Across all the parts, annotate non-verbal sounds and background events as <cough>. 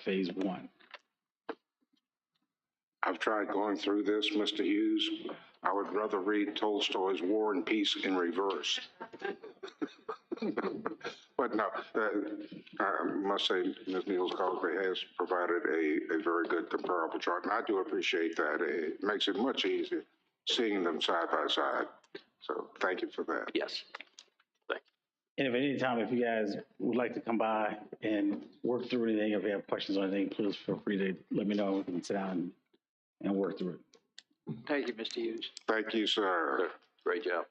phase one. I've tried going through this, Mr. Hughes. I would rather read Tolstoy's War and Peace in reverse. <laughs> But no, that, I must say, Ms. Niels Cosby has provided a, a very good comparable chart, and I do appreciate that. It makes it much easier seeing them side by side. So thank you for that. Yes. And if at any time, if you guys would like to come by and work through anything, if you have questions on anything, please feel free to let me know. We can sit down and, and work through it. Thank you, Mr. Hughes. Thank you, sir. Great job.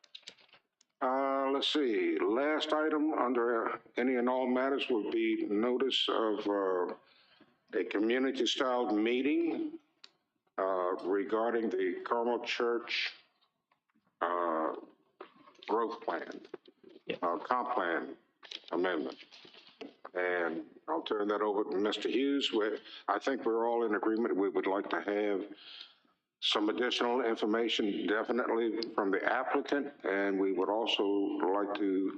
Uh, let's see, last item under any and all matters would be notice of, uh, a community-style meeting, uh, regarding the Carmel Church, uh, growth plan, Yeah. uh, comp plan amendment. And I'll turn that over to Mr. Hughes, where I think we're all in agreement, we would like to have some additional information definitely from the applicant, and we would also like to,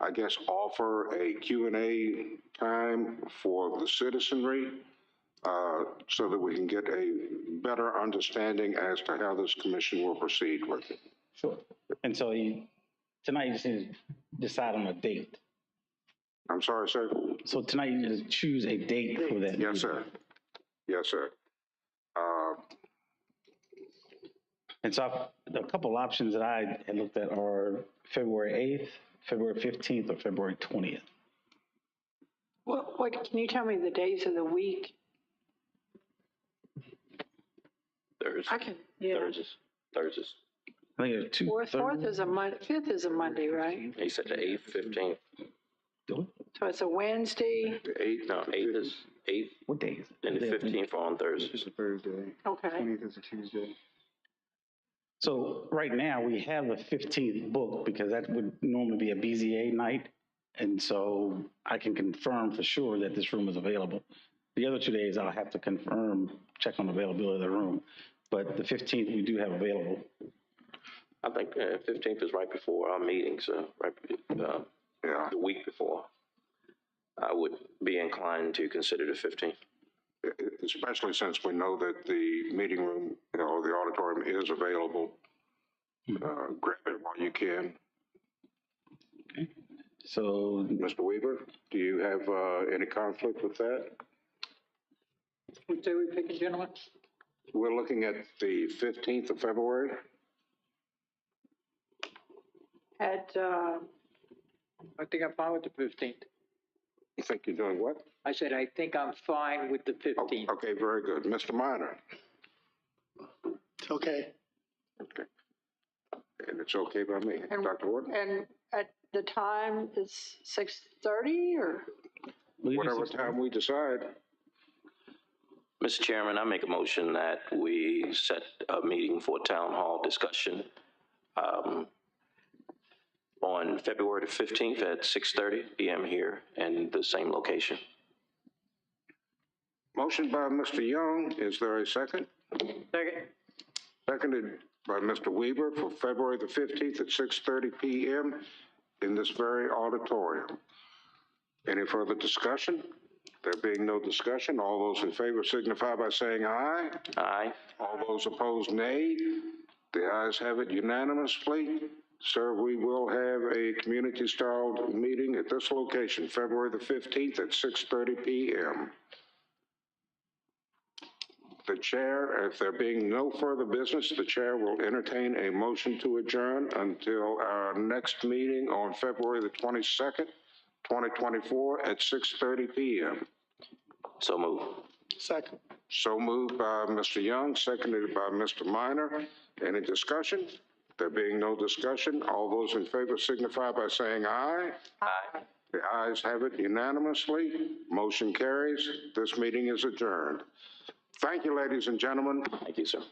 I guess, offer a Q and A time for the citizenry uh, so that we can get a better understanding as to how this commission will proceed with it. Sure. And so you, tonight you just need to decide on a date. I'm sorry, sir? So tonight you just choose a date for that. Yes, sir. Yes, sir. Uh, And so I've, a couple options that I had looked at are February 8th, February 15th, or February 20th. What, what, can you tell me the days of the week? Thursdays, I can, yeah. Thursdays, Thursdays. I think it's two. Fourth, fourth is a Mon, fifth is a Monday, right? He said the eighth, fifteenth. Thursday. So it's a Wednesday, the Eight, No, eighth is eighth What day is it? and the Is it- fifteenth are on Thursdays. It's a Thursday. okay. Twentieth is a Tuesday. So right now, we have the fifteenth booked because that would normally be a BZA night. And so I can confirm for sure that this room is available. The other two days, I'll have to confirm, check on availability of the room. But the fifteenth, we do have available. I think uh, fifteenth is right before our meeting, so right, be- uh, yeah. the week before. I would be inclined to consider the fifteenth. especially since we know that the meeting room, you know, the auditorium is available. Uh, grab it while you can. So Mr. Weaver, do you have, uh, any conflict with that? What day we picking, gentlemen? We're looking at the fifteenth of February. At, uh, I think I'm fine with the fifteenth. You think you're doing what? I said, I think I'm fine with the Oh, fifteenth. Okay, very good. Mr. Minor? It's okay. Okay. And it's okay by me. And- Dr. Ward? and at the time is six thirty or? leave us- Whatever time we decide, Mr. Chairman, I make a motion that we set a meeting for town hall discussion um, on February the fifteenth at six thirty PM here in the same location. Motion by Mr. Young, is there a second? Second. Seconded by Mr. Weaver for February the fifteenth at six thirty PM in this very auditorium. Any further discussion? There being no discussion, all those in favor signify by saying aye. Aye. All those opposed, nay. The ayes have it unanimously. Sir, we will have a community-style meeting at this location, February the 15th at 6:30 PM. The chair, if there being no further business, the chair will entertain a motion to adjourn until our next meeting on February the 22nd, 2024 at 6:30 PM. So move. So moved by Mr. Young, seconded by Mr. Minor. Any discussion? There being no discussion, all those in favor signify by saying aye. Aye. The ayes have it unanimously. Motion carries. This meeting is adjourned. Thank you, ladies and gentlemen. Thank you, sir.